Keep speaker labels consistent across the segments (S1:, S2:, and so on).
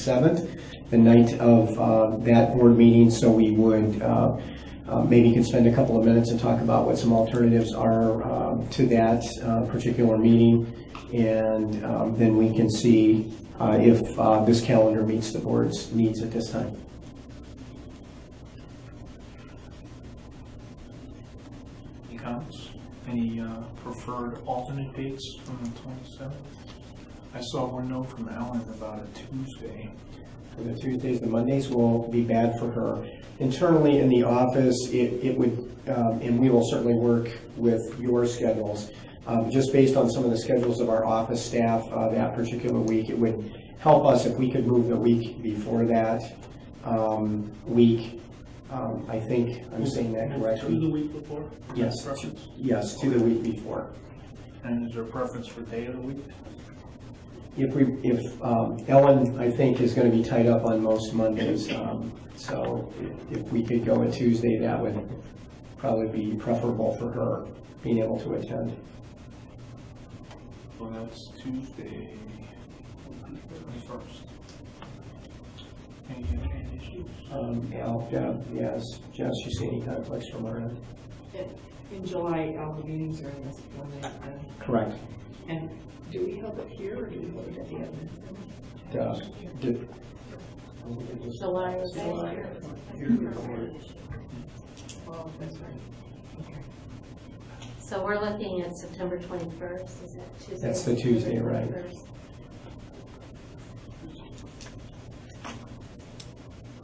S1: 7th, the night of uh, that board meeting, so we would, uh, uh, maybe could spend a couple of minutes and talk about what some alternatives are um, to that uh, particular meeting, and um, then we can see uh, if uh, this calendar meets the board's needs at this time.
S2: Any comments? Any uh, preferred alternate dates from the 27th? I saw one note from Ellen about a Tuesday.
S1: And the Tuesdays and Mondays will be bad for her. Internally in the office, it, it would, um, and we will certainly work with your schedules. Um, just based on some of the schedules of our office staff, uh, that particular week, it would help us if we could move the week before that, um, week. Um, I think I'm saying that
S2: To the
S1: correctly.
S2: week before?
S1: Yes.
S2: Preference?
S1: Yes, to the week before.
S2: And is there a preference for day of the week?
S1: If we, if, um, Ellen, I think, is gonna be tied up on most Mondays, um, so if we could go a Tuesday, that would probably be preferable for her, being able to attend.
S2: Well, that's Tuesday, twenty-first. Any, any issues?
S1: Um, Al, Deb, yes, Jess, you see any conflicts from our end?
S3: In July, all the meetings are in this one, and-
S1: Correct.
S3: and do we hold it here or do we hold it at the other?
S1: Uh, d-
S3: July is July. Oh, that's right.
S4: So we're looking at September 21st, is that Tuesday?
S1: That's the Tuesday, right.
S4: 21st.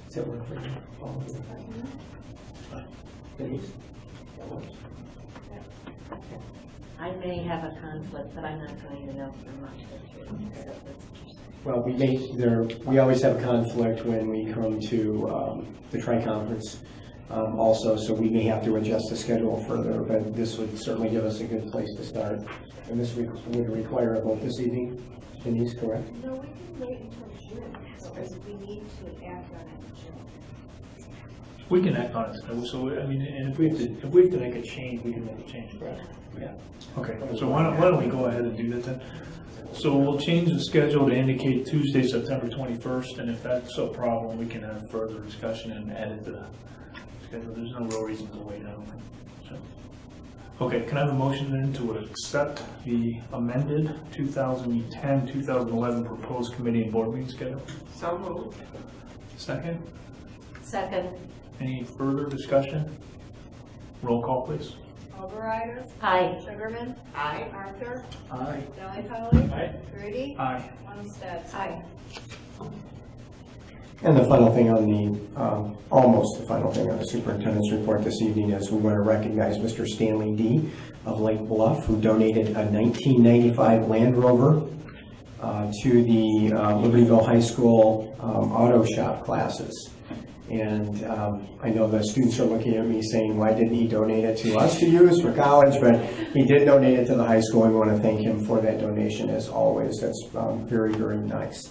S1: Does that work for you? All of you? Denise?
S4: I may have a conflict, but I'm not going to know for a month or two.
S1: Well, we make, there, we always have a conflict when we come to um, the tri-conference um, also, so we may have to adjust the schedule further, but this would certainly give us a good place to start. And this re- would require a vote this evening, Denise, correct?
S5: No, we can wait until June, because we need to act on it in June.
S2: We can act on it, so- so, I mean, and if we have to, if we have to make a change, we can make a change, correct?
S1: Yeah.
S2: Okay, so why don't, why don't we go ahead and do that then? So we'll change the schedule to indicate Tuesday, September twenty-first, and if that's a problem, we can have further discussion and edit the schedule. There's no real reason to wait, I don't think. So- Okay, can I have a motion then to accept the amended 2010, 2011 proposed committee and board meeting schedule?
S3: So moved.
S2: Second?
S4: Second,
S2: Any further discussion? Roll call, please.
S5: Overrider,
S4: aye.
S5: Sugarman,
S3: Aye.
S5: Arthur,
S1: Aye.
S5: Delli Polly,
S2: Aye.
S5: Grudy,
S2: Aye.
S5: Armstead.
S4: Aye.
S1: And the final thing on the, um, almost the final thing on the superintendent's report this evening is we want to recognize Mr. Stanley D. of Lake Bluff, who donated a 1995 Land Rover uh, to the uh, Libertyville High School um, auto shop classes. And um, I know the students are looking at me saying, why didn't he donate it to us to use for college? But he did donate it to the high school, and we want to thank him for that donation as always. That's um, very, very nice.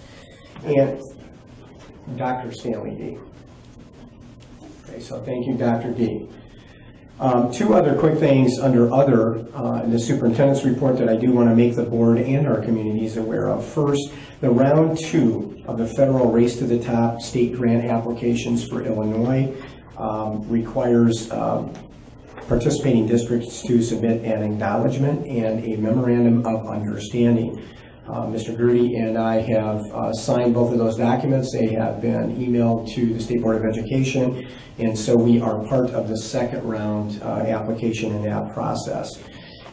S1: And Dr. Stanley D. Okay, so thank you, Dr. D. Um, Two other quick things under other, uh, in the superintendent's report that I do want to make the board and our communities aware of. First, the round two of the federal Race to the Top state grant applications for Illinois um, requires um, participating districts to submit an acknowledgement and a memorandum of understanding. Uh, Mr. Grudy and I have uh, signed both of those documents. They have been emailed to the State Board of Education, and so we are part of the second round uh, application in that process.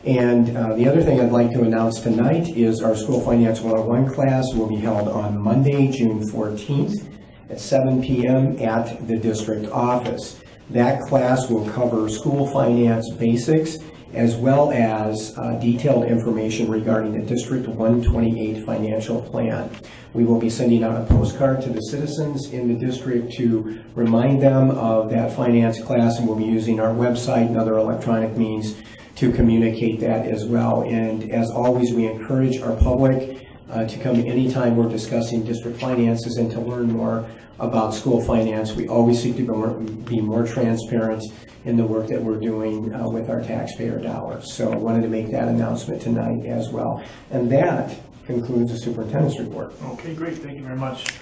S1: And uh, the other thing I'd like to announce tonight is our School Finance 101 class will be held on Monday, June 14th, at 7 PM at the district office. That class will cover school finance basics as well as uh, detailed information regarding the District 128 financial plan. We will be sending out a postcard to the citizens in the district to remind them of that finance class, and we'll be using our website and other electronic means to communicate that as well. And as always, we encourage our public uh, to come anytime we're discussing district finances and to learn more about school finance. We always seek to be more- be more transparent in the work that we're doing uh, with our taxpayer dollars. So I wanted to make that announcement tonight as well. And that concludes the superintendent's report.
S2: Okay, great, thank you very much.